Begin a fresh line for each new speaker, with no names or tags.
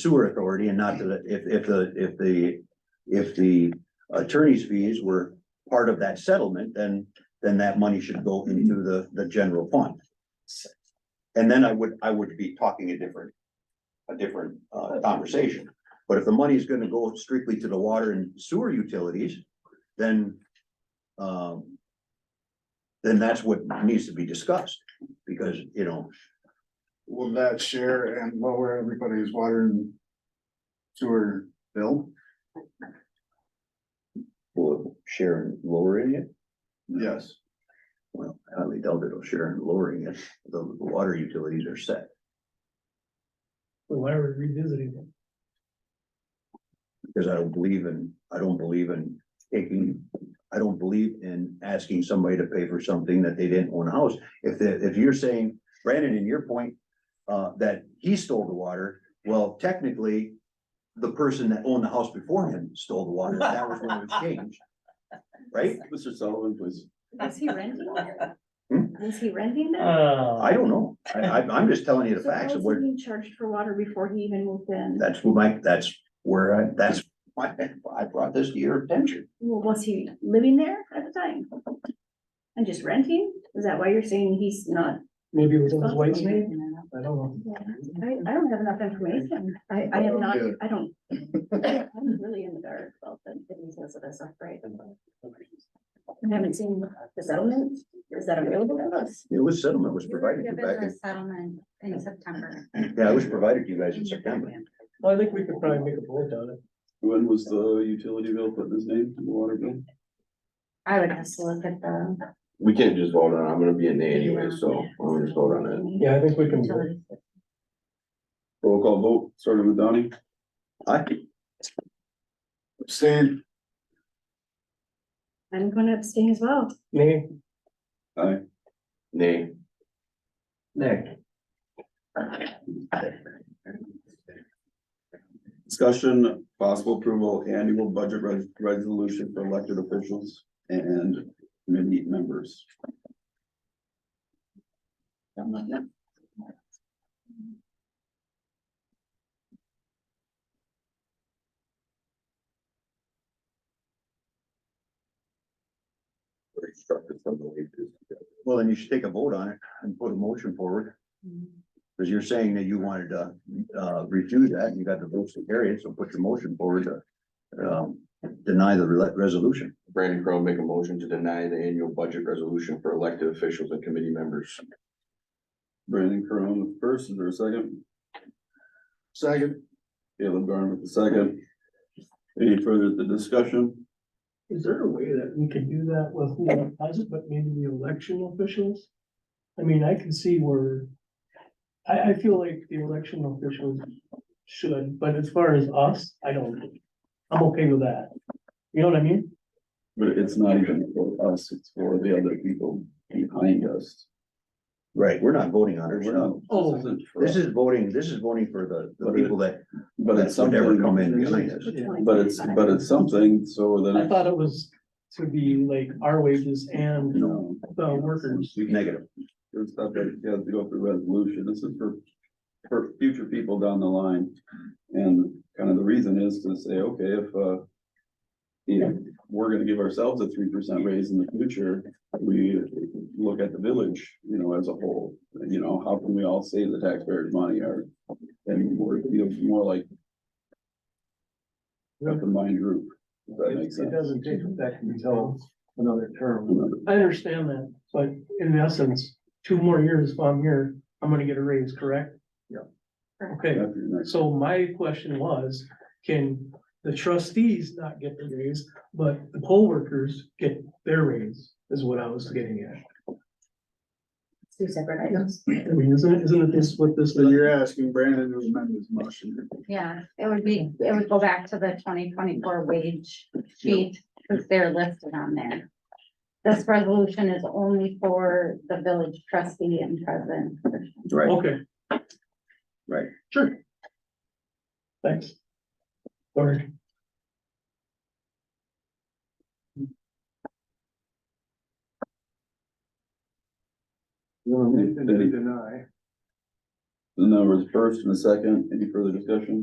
sewer authority and not to the, if, if the, if the, if the attorney's fees were part of that settlement, then, then that money should go into the, the general fund. And then I would, I would be talking a different, a different, uh, conversation. But if the money is gonna go strictly to the water and sewer utilities, then, um, then that's what needs to be discussed, because, you know,
Will that share and lower everybody's water and sewer bill?
will Sharon lowering it?
Yes.
Well, I highly doubt it'll Sharon lowering it, the, the water utilities are set.
Why are we revisiting them?
Because I don't believe in, I don't believe in taking, I don't believe in asking somebody to pay for something that they didn't own a house. If, the- if you're saying, Brandon, in your point, uh, that he stole the water, well, technically, the person that owned the house before him stole the water, that was when it was changed. Right?
Mr. Sullivan, please.
Was he renting that?
Hmm?
Was he renting that?
I
Uh,
don't know, I, I'm, I'm just telling you the
So
facts of
how is
what.
he being charged for water before he even moved in?
That's what my, that's where I, that's why I brought this to your attention.
Well, was he living there at the time? And just renting? Is that why you're saying he's not?
maybe it was on his wife's
responsible?
name, I don't know.
Yeah, I, I don't have enough information. I, I am not, I don't. I'm really in the dark about the, the details of this, right? I haven't seen the settlement. Is that available to us?
It was settlement was
You were
provided to you
given
back
a Settlement in September.
in, yeah, it was provided to you guys in
in your
September.
document.
Well, I think we could probably make a vote on it.
When was the utility bill put in his name, the water bill?
I would have to look at the.
We can't just vote on, it. I'm gonna be in there anyway, so I'm gonna just vote on it.
Yeah, I think we can. vote.
Utilities.
Roll call vote, starting with Donnie.
I,
Abstain.
I'm gonna abstain as well.
Name,
Aye.
Nay.
Discussion, possible approval, annual budget res- resolution for elected officials and committee members.
We're instructed from the leaders.
well, then you should take a vote on it and put a motion forward, because you're saying that you wanted to, uh, refuse that, and you got the votes to carry it, so put your motion forward to, um, deny the re- resolution.
Brandon Crowe make a motion to deny the annual budget resolution for elected officials and committee members.
Brandon Corona with first, is there a second?
Second,
Caleb Garn with the second. Any further the discussion?
is there a way that we could do that with the deposit, but maybe the election officials? I mean, I can see where, I, I feel like the election officials should, but as far as us, I don't. I'm okay with that. You know what I mean?
But it's not even for us, it's for the other people behind us.
Right, we're not voting on it,
We're
we're not,
not-
Oh.
isn't for
this
us.
is voting, this is voting for the, the
But it-
people that,
But it's
that would
something.
ever come in behind us.
But it's, but it's something, so
I
then,
thought it was to be like our wages and
you know.
the Oh, workers.
Negative,
It's not that you have to go through resolution, this is for, for future people down the line. And kind of the reason is to say, okay, if, uh. You know, we're gonna give ourselves a three percent raise in the future, we look at the village, you know, as a whole. You know, how can we all save the taxpayers' money or, and more, you know, more like. A combined group, if that makes sense.
take effect until another term.
Another-
I understand that, but in essence, two more years if I'm here, I'm gonna get a raise, correct?
Yeah.
Okay,
after your next-
so my question was, can the trustees not get the raise, but the poll workers get their raise, is what I was getting at.
Two separate items.
I mean, isn't it, isn't it this what this?
so you're asking Brandon to amend his motion.
Yeah, it would be, it would go back to the twenty twenty-four wage sheet, because they're listed on there. This resolution is only for the village trustee and president.
right?
Okay.
Right.
Sure. Thanks. Sorry.
Any-
Deny.
The numbers first and the second, any further discussion?